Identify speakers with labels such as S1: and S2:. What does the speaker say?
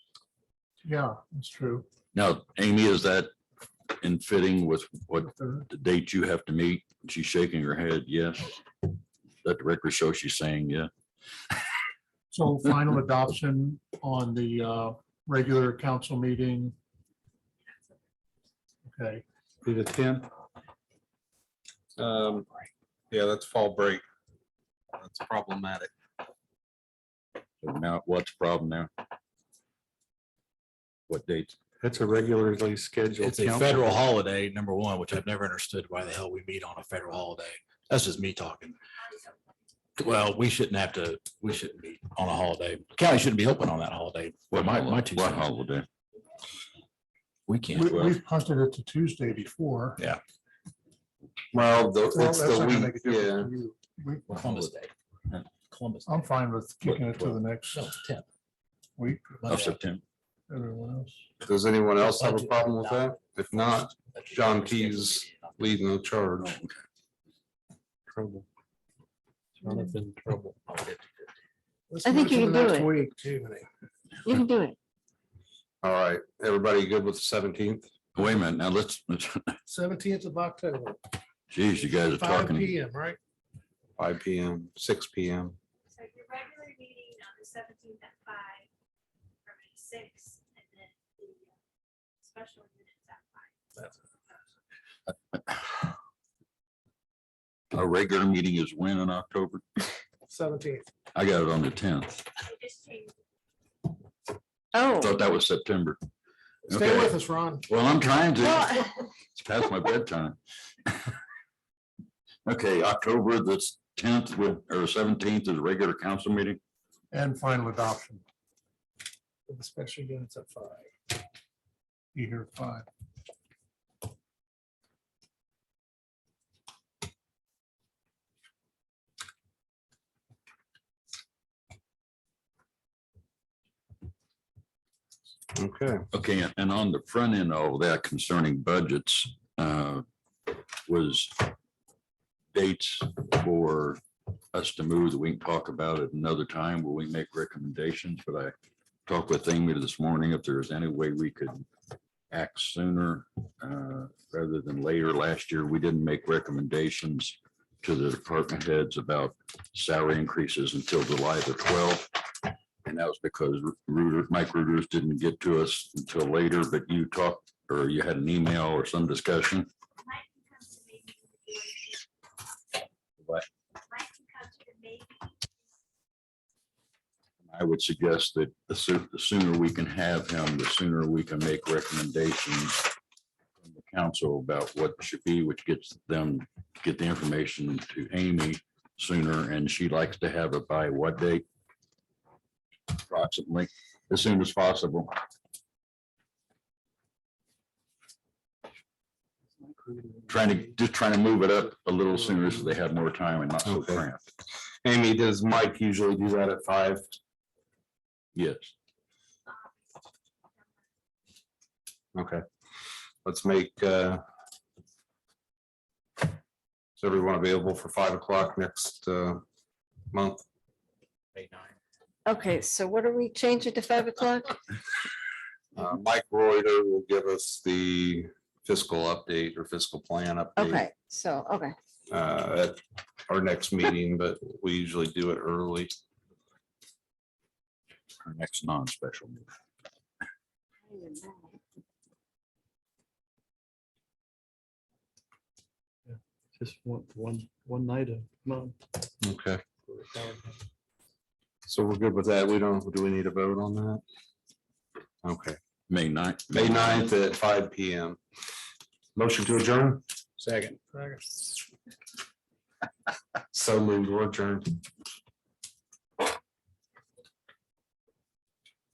S1: Yeah, that's true.
S2: Now, Amy, is that in fitting with what
S1: Third.
S2: the date you have to meet? She's shaking her head, yes. Let the record show she's saying, yeah.
S1: So final adoption on the uh, regular council meeting. Okay,
S3: Be the tenth.
S4: Um, yeah, that's fall break. That's problematic.
S2: So Now, what's the problem now? What date?
S3: That's a regularly scheduled.
S5: It's a
S3: council.
S5: federal holiday, number one, which I've never understood why the hell we meet on a federal holiday. That's just me talking. Well, we shouldn't have to, we shouldn't meet on a holiday. County shouldn't be open on that holiday. Well, my, my two
S2: What
S5: cents.
S2: holiday?
S5: We
S1: we,
S5: can't.
S1: we've punted it to Tuesday before.
S4: Well, the-
S1: Well, that's
S4: it's the
S1: not gonna
S4: week,
S1: make a difference
S4: yeah.
S1: to you. We- Um,
S5: Columbus Day. Columbus. Day. Oh,
S1: I'm fine with kicking it to the next
S5: No, tenth.
S1: week,
S2: Of
S5: Monday.
S2: September.
S1: everyone else.
S4: Does anyone else have a
S5: Budget
S4: problem with that? If not,
S5: That's just-
S4: John Key's leading the
S2: Oh,
S4: charge.
S2: okay.
S3: Trouble. Jonathan Trouble.
S6: I think you can do it. You can do it.
S4: All right, everybody good with the seventeenth?
S2: Wait a minute, now let's, let's,
S1: Seventeenth of October,
S2: geez, you guys are talking.
S1: M, right?
S4: Five P M, six P M.
S7: So your regular meeting on the seventeenth at five, or maybe six, and then the uh, special minutes at five.
S2: Our regular meeting is when in October?
S1: Seventeenth.
S2: I got it on the tenth.
S7: We just changed
S6: Oh,
S2: Thought that was September.
S1: Stay
S2: Okay.
S1: with us, Ron.
S2: Well, I'm trying to.
S6: well,
S2: It's past my bedtime. Okay, October the tenth with, or seventeenth is regular council meeting.
S1: And final adoption. The special units at five. You hear five.
S4: Okay,
S2: Okay, and on the front end of that concerning budgets, uh, was dates for us to move that we can talk about at another time where we make recommendations, but I talked with Amy this morning if there's any way we could act sooner, uh, rather than later. Last year, we didn't make recommendations to the department heads about salary increases until July the twelfth. And that was because Reuters, Mike Reuters didn't get to us until later, but you talked, or you had an email or some discussion.
S7: Mike can come to maybe.
S2: What?
S7: Mike can come to the maybe.
S2: I would suggest that the soo- the sooner we can have him, the sooner we can make recommendations from the council about what should be, which gets them, to get the information to Amy sooner, and she likes to have it by what date? Approximately, as soon as possible. Trying to, just trying to move it up a little sooner so they have more time and not so
S4: Okay.
S2: cramped.
S4: Amy, does Mike usually do that at five?
S2: Yes.
S4: Okay, let's make uh. Is everyone available for five o'clock next uh month?
S5: May nine.
S6: okay, so what are we changing to five o'clock?
S4: Uh, Mike Reuter will give us the fiscal update or fiscal plan update
S6: Okay, so, okay,
S4: uh, at our next meeting, but we usually do it early.
S2: our next non-special. meeting.
S3: Just one, one, one night a month.
S4: Okay. So we're good with that. We don't, do we need a vote on that? Okay,
S2: May ninth.
S4: May 9th at five P M. Motion to adjourn?
S5: Second.
S4: So moved, we're adjourned.